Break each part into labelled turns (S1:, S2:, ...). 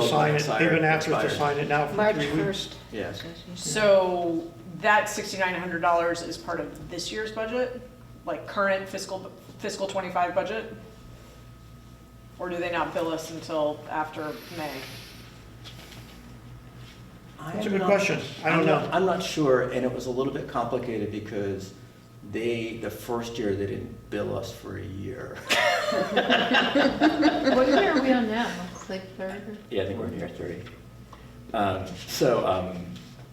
S1: to sign it. They've been asking us to
S2: Expired.
S1: sign it now for
S3: March
S1: three weeks.
S3: 1st.
S2: Yes.
S4: So that sixty-nine hundred dollars is part of this year's budget, like current fiscal, fiscal twenty-five budget? Or do they not bill us until after May?
S1: That's a good question. I don't
S2: I'm not-
S1: know.
S2: I'm not sure, and it was a little bit complicated because they, the first year, they didn't bill us for a year.
S5: What year are we on now? It's like third?
S2: Yeah, I think we're in year three. Um, So, um,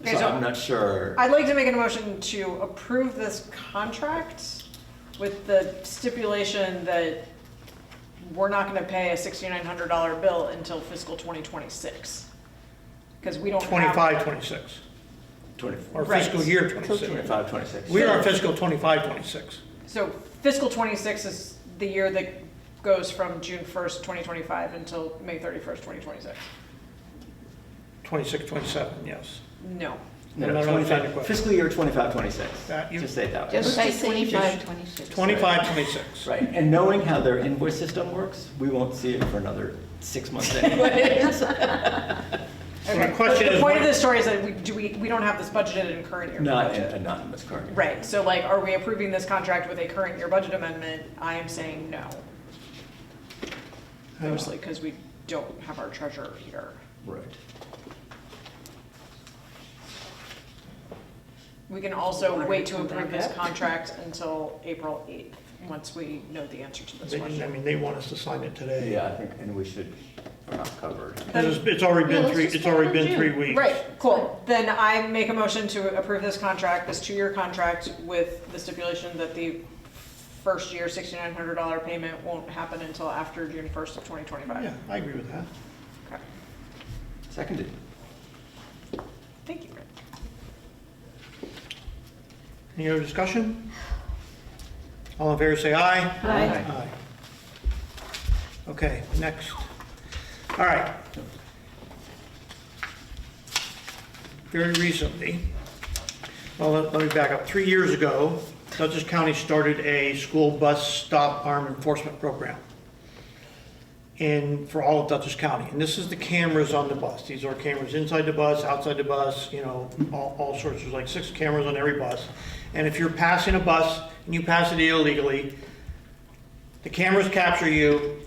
S4: Okay,
S2: so
S4: so-
S2: I'm not sure.
S4: I'd like to make a motion to approve this contract with the stipulation that we're not gonna pay a sixty-nine hundred dollar bill until fiscal twenty twenty-six. Cause we don't have.
S1: 25, 26, or
S2: 24,
S4: Right.
S1: fiscal year
S5: Till
S1: 26.
S2: 25, 26.
S1: We are fiscal 25, 26.
S4: So fiscal twenty-six is the year that goes from June first, twenty twenty-five until May thirty-first, twenty twenty-six.
S1: 26, 27, yes.
S4: No.
S2: No,
S1: I'm
S2: no,
S1: not understanding
S2: 25
S1: the question.
S2: Fiscal year 25, 26.
S1: That Uh, you-
S2: Just say it that. way.
S3: Just say
S5: Let's just say
S3: 25,
S5: just-
S3: 26.
S1: 25, 26.
S2: Right, and knowing how their invoice system works, we won't see it for another six months anyways.
S1: So my
S4: Okay.
S1: question
S4: The
S1: is
S4: point
S1: what-
S4: of this story is that we, do we, we don't have this budgeted in current year.
S2: Not an anonymous card.
S4: Right, so like, are we approving this contract with a current year budget amendment? I am saying no, mostly because we don't have our treasurer here.
S2: Right.
S4: We can also wait to
S3: come back
S4: approve this
S3: up?
S4: contract until April eighth, once we know the answer to this
S1: They- I
S4: question.
S1: mean, they want us to sign it today.
S2: Yeah, I think, and we should, we're not covered.
S1: 'Cause It's it's already
S5: Yeah,
S1: been
S5: let's
S1: three,
S5: just
S1: it's already
S5: put it in
S1: been three
S5: June.
S1: weeks.
S4: Right, cool. Then I make a motion to approve this contract, this two-year contract with the stipulation that the first year sixty-nine hundred dollar payment won't happen until after June first of twenty
S1: Yeah,
S4: twenty-five.
S1: I agree with that.
S4: Okay.
S2: Seconded.
S4: Thank you.
S1: Any other discussion? All in favor, say aye.
S3: Aye.
S1: Aye. Okay, next. All right. Very recently, well, let let me back up. Three years ago, Dutchess County started a school bus stop arm enforcement program in, for all of Dutchess County. And this is the cameras on the bus. These are cameras inside the bus, outside the bus, you know, all, all sorts. There's like six cameras on every bus. And if you're passing a bus and you pass it illegally, the cameras capture you.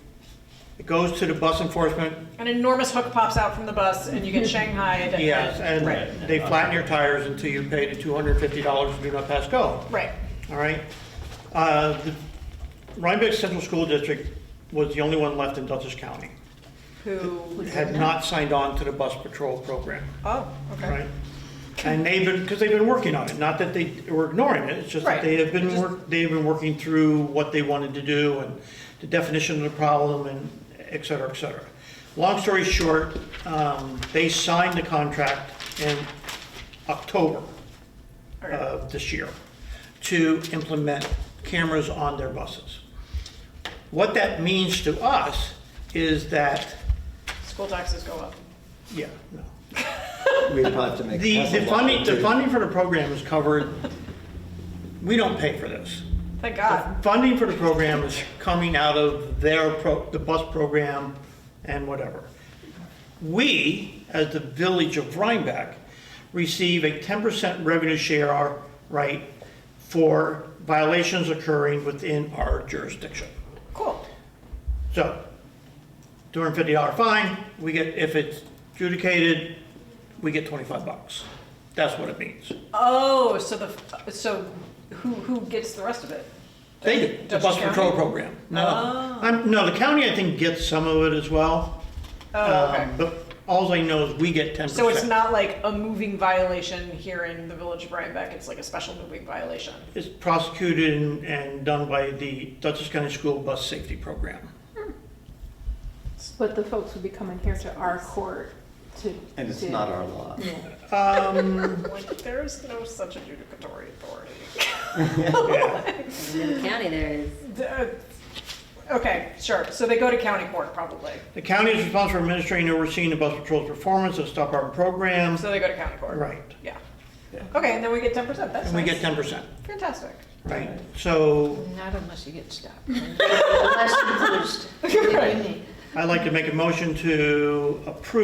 S1: It goes to the bus enforcement.
S4: An enormous hook pops out from the bus and you get shanghaied.
S1: Yes,
S4: Right,
S1: and they flatten your tires until you pay the $250 do not pass go.
S4: right.
S1: All right. Uh, the Rhinebeck Central School District was the only one left in Dutchess County.
S4: Who,
S1: Had not signed on to the bus patrol program.
S4: oh, okay.
S1: Right? And they've been, because they've been working on it, not that they were ignoring it, it's just that
S4: Right.
S1: they have been, work- they've been working through what they wanted to do and the definition of the problem and et cetera, et cetera. Long story short, um, they signed the contract in October
S4: Okay.
S1: of this year to implement cameras on their buses. What that means to us is that,
S4: School taxes go up.
S1: yeah, no.
S2: We probably have to make.
S1: The,
S2: that's a
S1: the
S2: lot
S1: funding, the
S2: to-
S1: funding for the program is covered, we don't pay for this.
S4: Thank God.
S1: Funding for the program is coming out of their pro, the bus program and whatever. We, as the village of Rhinebeck, receive a ten percent revenue share, right, for violations occurring within our jurisdiction.
S4: Cool.
S1: So, two hundred and fifty dollar fine, we get, if it's adjudicated, we get twenty-five bucks. That's what it means.
S4: Oh, so the, so who, who gets the rest of it?
S1: They do, the
S4: Dutchess
S1: bus
S4: County?
S1: patrol program. No,
S4: Oh.
S1: I'm, no, the county, I think, gets some of it as well.
S4: Oh, okay.
S1: Um, But all I know is we get ten percent.
S4: So it's not like a moving violation here in the village of Rhinebeck, it's like a special moving violation.
S1: It's prosecuted and, and done by the Dutchess County School Bus Safety Program.
S6: But the folks would be coming here to our court to.
S2: And it's
S6: to-
S2: not our law.
S1: Um,
S4: Like, there is no such adjudicatory authority.
S1: yeah,
S3: In the county there is.
S4: The- uh, Okay, sure, so they go to county court probably,
S1: the county is responsible for administering and overseeing the bus patrol's performance of stop arm programs,
S4: so they go to county court.
S1: right,
S4: Yeah.
S2: Yeah.
S4: Okay, and then we get ten percent, that's
S1: and we get
S4: nice.
S1: ten percent,
S4: Fantastic.
S1: right? So
S3: Not unless you get stopped. Unless you lose.
S4: Right.
S1: I'd like to make a motion to approve